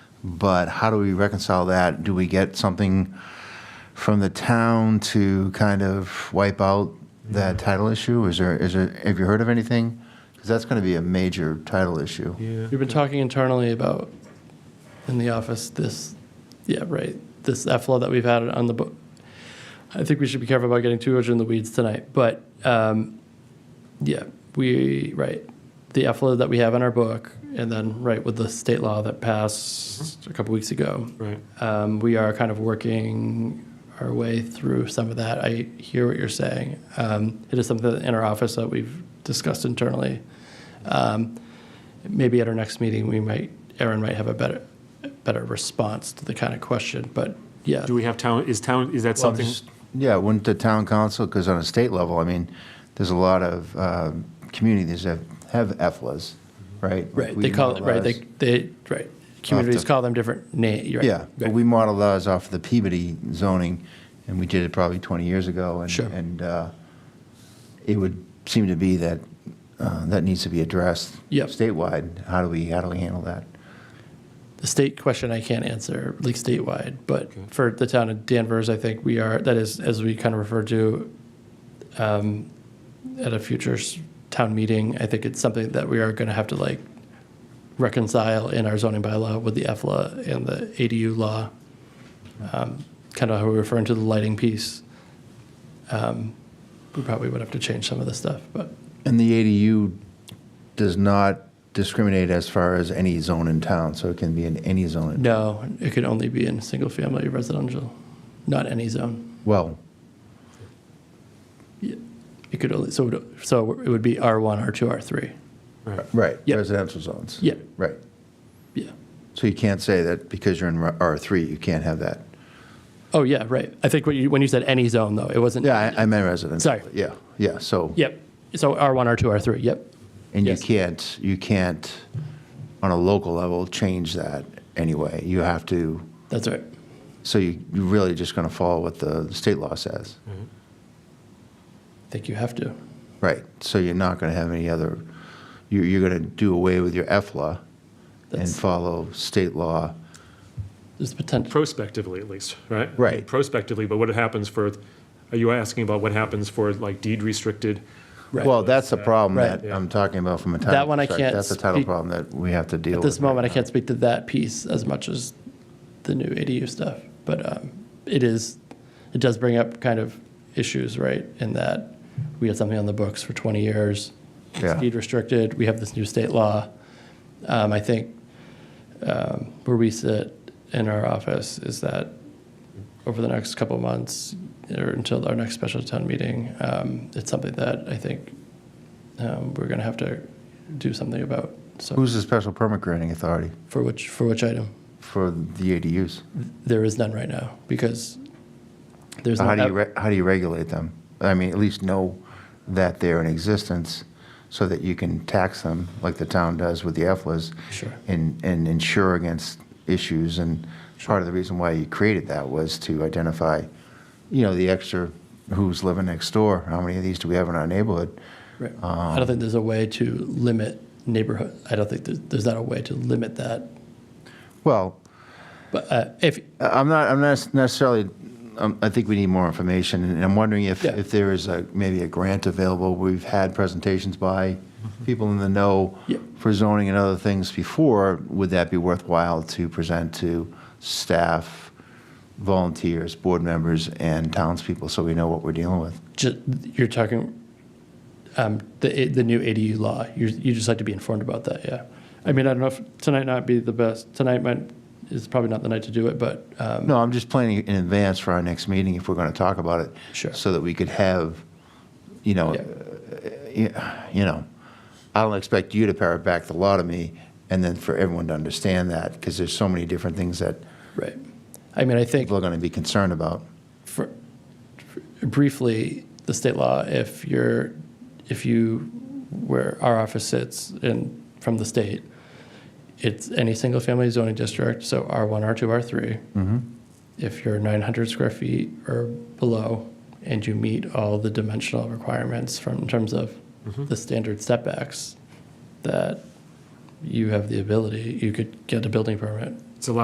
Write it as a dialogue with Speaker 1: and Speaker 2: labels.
Speaker 1: But how do we reconcile that? Do we get something from the town to kind of wipe out that title issue? Is there, is there, have you heard of anything? Because that's going to be a major title issue.
Speaker 2: Yeah.
Speaker 3: We've been talking internally about, in the office, this, yeah, right, this EFLA that we've had on the book. I think we should be careful about getting too much in the weeds tonight, but, um, yeah, we, right, the EFLA that we have in our book, and then, right, with the state law that passed a couple weeks ago.
Speaker 2: Right.
Speaker 3: Um, we are kind of working our way through some of that. I hear what you're saying. Um, it is something in our office that we've discussed internally. Um, maybe at our next meeting, we might, Aaron might have a better, better response to the kind of question. But yeah,
Speaker 2: Do we have town, is town, is that
Speaker 1: Well,
Speaker 2: something?
Speaker 1: just- Yeah, wouldn't the town council, because on a state level, I mean, there's a lot of uh, communities that have EFLAs, right?
Speaker 3: right,
Speaker 1: We
Speaker 3: they call it
Speaker 1: model
Speaker 3: right. They
Speaker 1: ours-
Speaker 3: they right. Communities call them different names. Right.
Speaker 1: Yeah, but
Speaker 3: right.
Speaker 1: we modeled ours off of the Peabody zoning, and we did it probably 20 years ago. and-
Speaker 3: Sure.
Speaker 1: And uh, it would seem to be that, uh, that needs to be addressed.
Speaker 3: Yep.
Speaker 1: Statewide, how do we, how do we handle that?
Speaker 3: The state question I can't answer, like statewide, but
Speaker 2: Okay.
Speaker 3: for the town of Danvers, I think we are, that is, as we kind of referred to um, at a future s- town meeting, I think it's something that we are going to have to like reconcile in our zoning bylaw with the EFLA and the ADU law. Kind of how we're referring to the lighting piece. Um, We probably would have to change some of the stuff, but
Speaker 1: And the ADU does not discriminate as far as any zone in town, so it can be in any zone. in-
Speaker 3: no, it could only be in single-family residential, not any zone.
Speaker 1: Well,
Speaker 3: It could only, so, it would- so it would be R1, R2, R3.
Speaker 2: Right.
Speaker 1: right,
Speaker 3: Yep.
Speaker 1: residential zones.
Speaker 3: Yeah,
Speaker 1: Right.
Speaker 3: yeah.
Speaker 1: So you can't say that because you're in R3, you can't have that.
Speaker 3: Oh, yeah, right. I think what you, when you said any zone, though, it wasn't.
Speaker 1: Yeah, I- I meant residential.
Speaker 3: Sorry.
Speaker 1: Yeah, yeah, so.
Speaker 3: Yep. So R1, R2, R3, yep.
Speaker 1: And you
Speaker 3: Yes.
Speaker 1: can't, you can't, on a local level, change that anyway. You have to,
Speaker 3: That's right.
Speaker 1: so you, you're really just going to follow what the state law says.
Speaker 3: Mm-hmm. I think you have to.
Speaker 1: Right, so you're not going to have any other, you're, you're going to do away with your EFLA and
Speaker 3: That's-
Speaker 1: follow state law.
Speaker 3: There's potential.
Speaker 2: Prospectively, at least, right?
Speaker 1: Right.
Speaker 2: Prospectively, but what happens for, are you asking about what happens for like deed restricted?
Speaker 3: Right.
Speaker 1: Well, that's the problem
Speaker 3: Right.
Speaker 1: that I'm talking about from a title.
Speaker 3: That one I
Speaker 1: perspective.
Speaker 3: can't
Speaker 1: That's a title
Speaker 3: speak-
Speaker 1: problem that we have to deal
Speaker 3: At
Speaker 1: with.
Speaker 3: this
Speaker 1: right
Speaker 3: moment, I
Speaker 1: now.
Speaker 3: can't speak to that piece as much as the new ADU stuff, but um, it is, it does bring up kind of issues, right? In that we had something on the books for 20 years.
Speaker 1: Yeah.
Speaker 3: It's deed restricted. We have this new state law. Um, I think um, where we sit in our office is that over the next couple of months or until our next special town meeting, um, it's something that I think um, we're going to have to do something about. So
Speaker 1: Who's the special permit granting authority
Speaker 3: for which for which item?
Speaker 1: for the ADUs?
Speaker 3: There is none right now because there's
Speaker 1: So how
Speaker 3: not
Speaker 1: do you, re- how do you regulate them? I mean, at least know that they're in existence so that you can tax them like the town does with the EFLAs.
Speaker 3: Sure.
Speaker 1: And, and insure against issues. And part of the reason why you created that was to identify, you know, the extra, who's living next door? How many of these do we have in our neighborhood?
Speaker 3: Right.
Speaker 1: um,
Speaker 3: I don't think there's a way to limit neighborhood. I don't think there's, there's not a way to limit that.
Speaker 1: Well,
Speaker 3: But uh, if
Speaker 1: I'm not, I'm not necessarily, um, I think we need more information, and I'm wondering if,
Speaker 3: Yeah.
Speaker 1: if there is a, maybe a grant available. We've had presentations by people in the know
Speaker 3: Mm-hmm. Yeah.
Speaker 1: for zoning and other things before. Would that be worthwhile to present to staff, volunteers, board members, and townspeople, so we know what we're dealing with?
Speaker 3: ju- you're talking um, the the new ADU law, you you just like to be informed about that. Yeah. I mean, I don't know if tonight not be the best. Tonight might is probably not the night to do it, but um,
Speaker 1: No, I'm just planning in advance for our next meeting if we're going to talk about it.
Speaker 3: Sure.
Speaker 1: So that we could have, you know,
Speaker 3: Yeah.
Speaker 1: y- you know, I don't expect you to parrot back the law to me and then for everyone to understand that because there's so many different things that
Speaker 3: right. I mean, I think
Speaker 1: people are going to be concerned about.
Speaker 3: for, for- briefly, the state law, if you're, if you, where our office sits and from the state, it's any single-family zoning district, so R1, R2, R3. If you're 900 square feet or below, and you meet all the dimensional requirements from, in terms of the standard setbacks, that you have the ability, you could get a building permit